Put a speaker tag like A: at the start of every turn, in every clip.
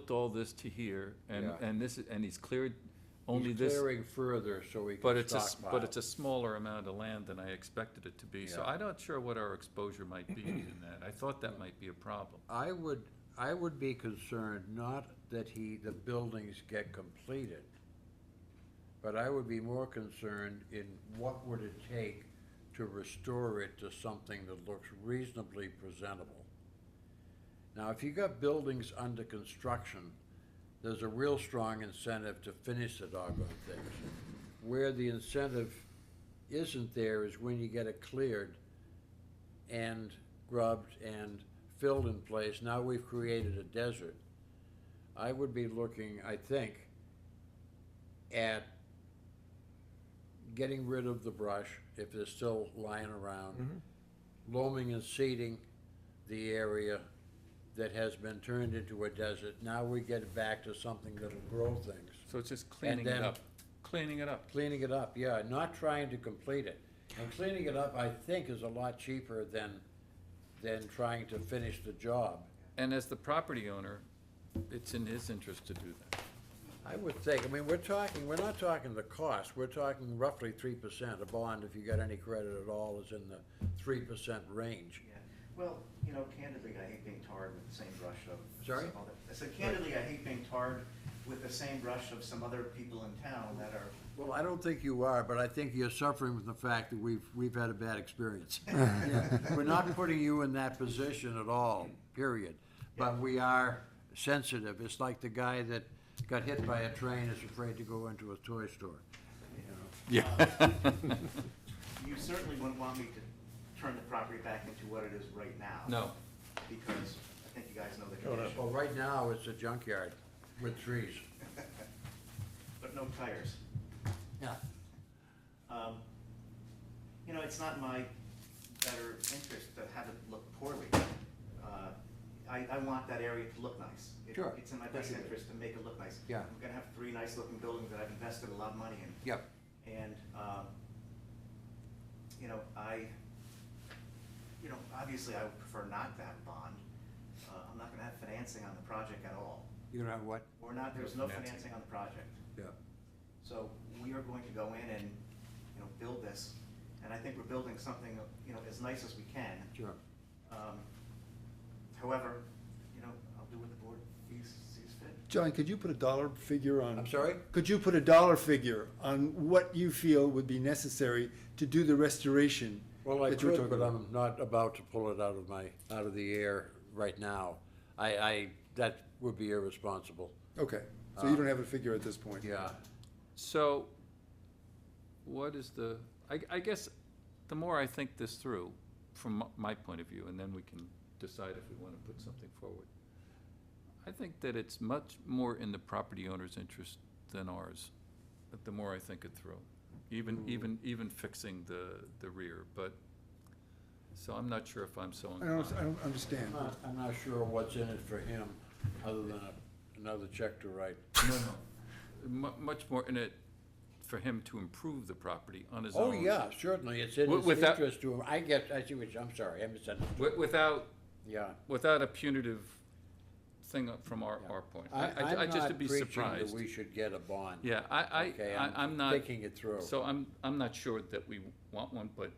A: moved all this to here, and,
B: Yeah.
A: and this, is- and he's cleared only
B: He's
A: this.
B: clearing further so we
A: But
B: can
A: it's a, s-
B: stockpile.
A: but it's a smaller amount of land than I expected it to be, so
B: Yeah.
A: I'm not sure what our exposure might be in that. I thought that might be a problem.
B: I would, I would be concerned, not that he, the buildings get completed, but I would be more concerned in what would it take to restore it to something that looks reasonably presentable. Now, if you got buildings under construction, there's a real strong incentive to finish the doggone things. Where the incentive isn't there is when you get it cleared and grubbed and filled in place, now we've created a desert. I would be looking, I think, at getting rid of the brush if they're still lying around, loaming and seeding the area that has been turned into a desert. Now we get it back to something that'll grow things.
A: So it's just cleaning it
B: then-
A: up, cleaning it up.
B: Cleaning it up, yeah, not trying to complete it. And cleaning it up, I think, is a lot cheaper than, than trying to finish the job.
A: And as the property owner, it's in his interest to do that.
B: I would think, I mean, we're talking, we're not talking the cost, we're talking roughly three percent. A bond, if you got any credit at all, is in the three percent range.
C: Yeah, well, you know, candidly, I hate being tarred with the same brush of.
B: Sorry?
C: some other- I said candidly, I hate being tarred with the same brush of some other people in town that are,
B: Well, I don't think you are, but I think you're suffering from the fact that we've, we've had a bad experience. We're not putting you in that position at all, period. But we are sensitive. It's like the guy that got hit by a train is afraid to go into a toy store.
C: Um, you certainly wouldn't want me to turn the property back into what it is right now.
A: No,
C: Because I think you guys know the condition,
B: Well, right now, it's a junkyard with trees.
C: but no tires.
B: Yeah.
C: Um, You know, it's not in my better interest to have it look poorly. Uh, I, I want that area to look nice. It-
B: Sure.
C: It's in my
B: Yes,
C: best
B: you do.
C: interest to make it look nice.
B: Yeah.
C: I'm gonna have three nice-looking buildings that I've invested a lot of money in.
B: Yep.
C: And, um, you know, I, you know, obviously I would prefer not to have a bond. Uh, I'm not gonna have financing on the project at all.
B: You know what?
C: We're not, there's no financing on the project.
B: Yeah.
C: So we are going to go in and, you know, build this, and I think we're building something, you know, as nice as we can.
B: Sure.
C: Um, However, you know, I'll do what the board sees, sees fit.
D: John, could you put a dollar figure on?
B: I'm sorry?
D: Could you put a dollar figure on what you feel would be necessary to do the restoration?
B: Well, I
D: that you were
B: could,
D: talking
B: but
D: about?
B: I'm not about to pull it out of my, out of the air right now. I, I, that would be irresponsible.
D: Okay, so you don't have a figure at this point?
B: Uh, Yeah.
A: so what is the, I, I guess, the more I think this through, from m- my point of view, and then we can decide if we want to put something forward. I think that it's much more in the property owner's interest than ours, but the more I think it through. Even, even, even fixing the, the rear, but, so I'm not sure if I'm so
D: I don't, I
A: inclined.
D: don't understand.
B: I'm not, I'm not sure what's in it for him, other than a- another check to write.
A: No, no. Mu- much more in it for him to improve the property on his
B: Oh,
A: own.
B: yeah, certainly, it's in
A: Wi-
B: his
A: without-
B: interest to him. I get, I see what, you- I'm sorry, I misunderstood.
A: Wi- Without,
B: Yeah.
A: without a punitive thing up from our,
B: yeah.
A: our point.
B: I- I'm
A: I just
B: not
A: would be
B: preaching that
A: surprised.
B: We should get a bond.
A: Yeah, I, I,
B: Okay,
A: I- I'm not,
B: Thinking it through.
A: so I'm, I'm not sure that we want one, but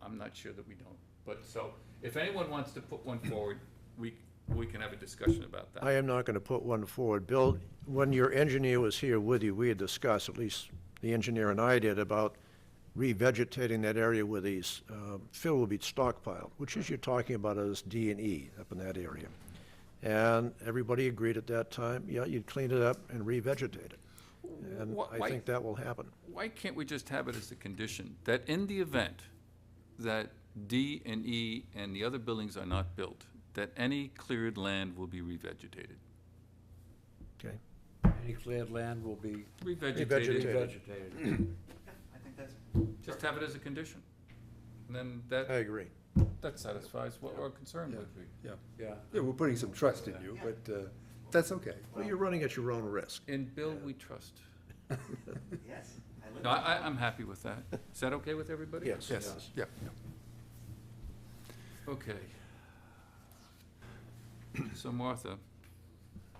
A: I'm not sure that we don't. But so, if anyone wants to put one forward, we, we can have a discussion about that.
E: I am not going to put one forward. Bill, when your engineer was here with you, we had discussed, at least the engineer and I did, about revegetating that area where these, uh, fill will be stockpiled, which is you're talking about as D and E up in that area. And everybody agreed at that time, yeah, you'd clean it up and revegetate it. And
A: Wh-
E: I
A: why-
E: think that will happen.
A: Why can't we just have it as a condition that in the event that D and E and the other buildings are not built, that any cleared land will be revegetated?
E: Okay?
B: Any cleared land will be
A: Revegetated,
E: Revegetated.
B: vegetated.
C: Yeah, I think that's,
A: just have it as a condition. And then that,
E: agree.
A: that satisfies what we're concerned with.
D: Yeah,
B: Yeah.
D: yeah, we're putting some trust in you, but, uh, that's okay.
E: Well, you're running at your own risk.
A: In Bill, we trust.
C: yes, I live.
A: No, I, I- I'm happy with that. Is that okay with everybody?
E: Yes.
D: Yes, yeah.
A: Okay. So Martha,